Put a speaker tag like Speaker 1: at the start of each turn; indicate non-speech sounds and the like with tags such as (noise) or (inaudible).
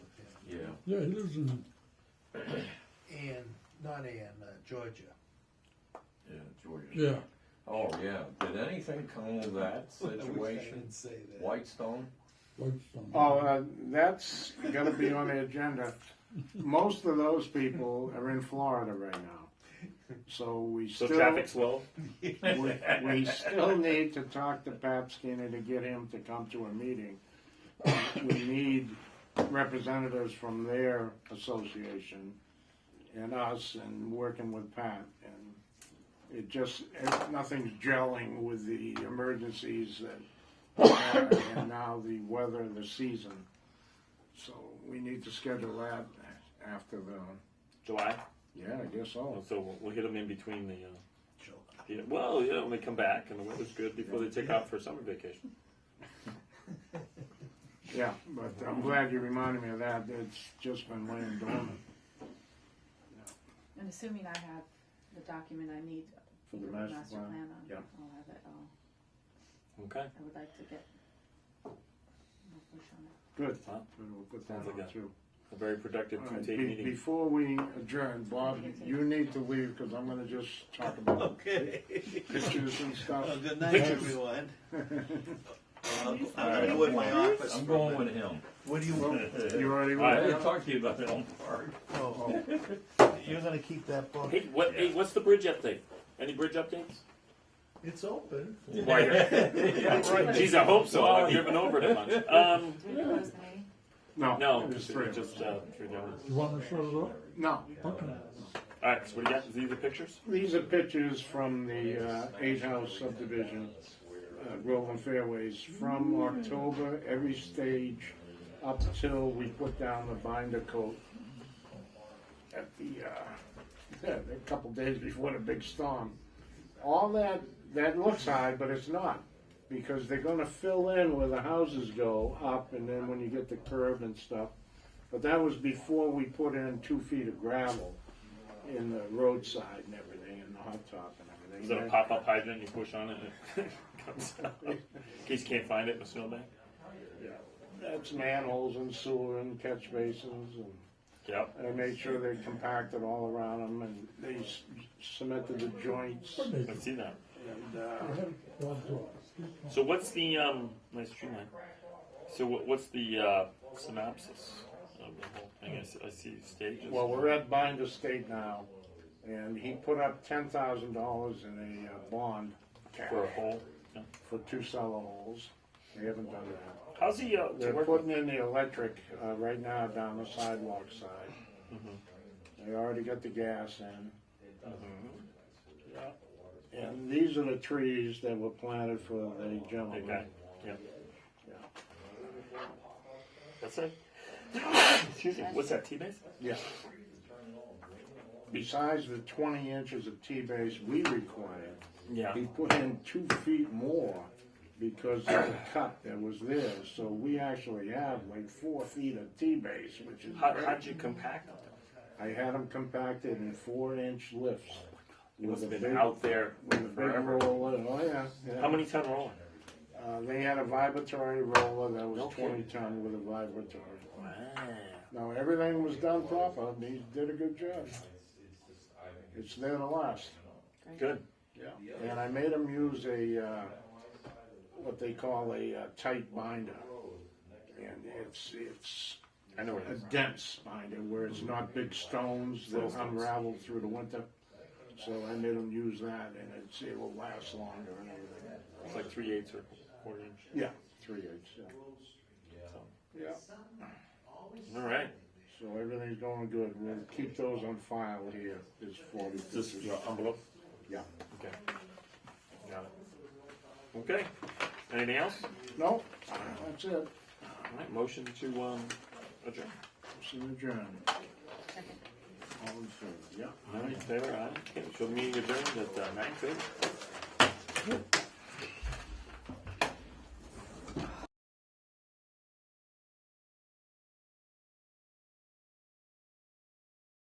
Speaker 1: Yeah, he lives in,
Speaker 2: and not in uh, Georgia.
Speaker 3: Yeah, Georgia.
Speaker 1: yeah,
Speaker 3: Oh, yeah, did anything come of (laughs) that situation?
Speaker 2: Say that.
Speaker 3: Whitestone?
Speaker 1: Whitestone.
Speaker 4: Oh, uh, that's got to be on the agenda. Most of those people are in Florida right now, so we
Speaker 5: So
Speaker 4: still
Speaker 5: traffic's low.
Speaker 4: we, we still need to talk to Pat Skinner to get him to come to a meeting. Um, We need representatives from their association and us and working with Pat and it just, it- nothing's gelling with the emergencies that are, and now the weather, the season. So we need to schedule that after the,
Speaker 5: July.
Speaker 4: yeah, I guess so.
Speaker 5: So we'll, we'll hit them in between the. Uh,
Speaker 2: July.
Speaker 5: yeah, well, yeah, when they come back and the weather's good before they take off for summer vacation.
Speaker 4: Yeah, but I'm glad you reminded me of that. It's just been laying dormant.
Speaker 6: And assuming I have the document I need
Speaker 4: For
Speaker 6: for
Speaker 4: the
Speaker 6: the
Speaker 4: master
Speaker 6: master
Speaker 4: plan,
Speaker 6: plan, I'll,
Speaker 4: yeah.
Speaker 6: I'll have it all.
Speaker 5: Okay.
Speaker 6: I would like to get. more push on it.
Speaker 4: Good.
Speaker 5: Huh?
Speaker 4: Good, We'll put
Speaker 5: Sounds
Speaker 4: that
Speaker 5: like
Speaker 4: on
Speaker 5: a
Speaker 4: too.
Speaker 5: A very productive
Speaker 4: All right,
Speaker 5: two-take
Speaker 4: be-
Speaker 5: meeting.
Speaker 4: Before we adjourn, Bob, you need to leave because I'm gonna just talk about
Speaker 2: Okay.
Speaker 4: pictures and
Speaker 2: (laughs) Well,
Speaker 4: stuff.
Speaker 5: (laughs)
Speaker 2: good night, (laughs) everyone. I'll, I'll go in my office.
Speaker 3: I'm going with him.
Speaker 2: What do you want?
Speaker 4: You already
Speaker 5: All right.
Speaker 3: I
Speaker 4: went.
Speaker 3: didn't talk to you about that one part.
Speaker 2: Oh, (laughs) you're gonna keep that book.
Speaker 5: Hey, what, hey, what's the bridge update? Any bridge updates?
Speaker 2: It's open.
Speaker 5: Jeez, I hope so. I've driven over it
Speaker 4: (laughs)
Speaker 5: a bunch. Um,
Speaker 6: Do we close the meeting?
Speaker 4: No.
Speaker 5: no,
Speaker 4: there's
Speaker 5: just,
Speaker 4: three of us.
Speaker 5: just uh, through the others.
Speaker 1: You want to shut it up?
Speaker 4: No,
Speaker 1: Okay.
Speaker 5: All right, so what do you got? These the pictures?
Speaker 4: these are pictures from the uh, eight house subdivision, uh, Groveland Fairways, from October, every stage up till we put down the binder coat at the, uh, (laughs) a couple days before the big storm. All that, that looks high, but it's not, because they're gonna fill in where the houses go up, and then when you get the curb and stuff. But that was before we put in two feet of gravel in the roadside and everything, and the hot top and everything.
Speaker 5: Is that a pop-up hydrant? You push on it and (laughs) it comes out. In case you can't find it in a snowbank.
Speaker 4: Yeah. That's manholes and sewer and catch basins, and
Speaker 5: Yep.
Speaker 4: I made sure they compacted all around them, and they s- cemented the joints,
Speaker 5: I see that.
Speaker 4: and, uh,
Speaker 5: So what's the um? Nice streamline. So what, what's the uh, synopsis of the whole thing? I see, I see stages.
Speaker 4: well, we're at Binder State now, and he put up ten thousand dollars in a uh, bond
Speaker 5: for a whole. yeah.
Speaker 4: for two cellar holes. They haven't done that.
Speaker 5: How's he? Uh, to
Speaker 4: They're
Speaker 5: work
Speaker 4: putting in the electric uh, right now down the sidewalk side.
Speaker 5: Mm-hmm.
Speaker 4: They already got the gas in. And these are the trees that were planted for the
Speaker 5: with-
Speaker 4: gentleman.
Speaker 5: Okay. Yeah. That's it. (coughs) Excuse me. What's that? T base?
Speaker 4: Yeah. Besides the twenty inches of T-base we required,
Speaker 5: Yeah.
Speaker 4: he put in two feet more because of the cut that was there. So we actually have like four feet of T-base, which is
Speaker 5: How,
Speaker 4: great.
Speaker 5: how'd you compact it?
Speaker 4: I had them compacted in four inch lifts.
Speaker 5: It Oh must
Speaker 4: a
Speaker 5: have been
Speaker 4: big-
Speaker 5: out there
Speaker 4: With a big
Speaker 5: forever.
Speaker 4: roller, oh yeah. yeah.
Speaker 5: How many ton roller?
Speaker 4: Uh, they had a vibratory roller that
Speaker 5: No
Speaker 4: was twenty
Speaker 5: kidding.
Speaker 4: ton with a vibratory.
Speaker 5: Wow.
Speaker 4: Now, everything was done proper, and he did a good job. It's there to last.
Speaker 5: Good.
Speaker 4: Yeah. And I made them use a, uh, what they call a uh, tight binder. And it's, it's
Speaker 5: I know where
Speaker 4: a
Speaker 5: it is.
Speaker 4: dense binder where it's not big stones, they'll unravel through the winter. So I made them use that and it's, it will last longer and everything.
Speaker 5: It's like three eighths or four inch.
Speaker 4: Yeah, three inch, yeah. Yeah,
Speaker 5: All right.
Speaker 4: so everything's going good, we'll keep those on file here, there's forty
Speaker 5: This is
Speaker 4: pictures.
Speaker 5: your envelope.
Speaker 4: Yeah.
Speaker 5: Okay. Got it. Okay. Anything else?
Speaker 4: No, that's it,
Speaker 5: All right. Motion to um, adjourn.
Speaker 4: see you adjourned.
Speaker 6: Second.
Speaker 4: All in favor, yeah.
Speaker 5: All right. Favor. Aye. Okay. So the meeting adjourned at uh, nine thirty.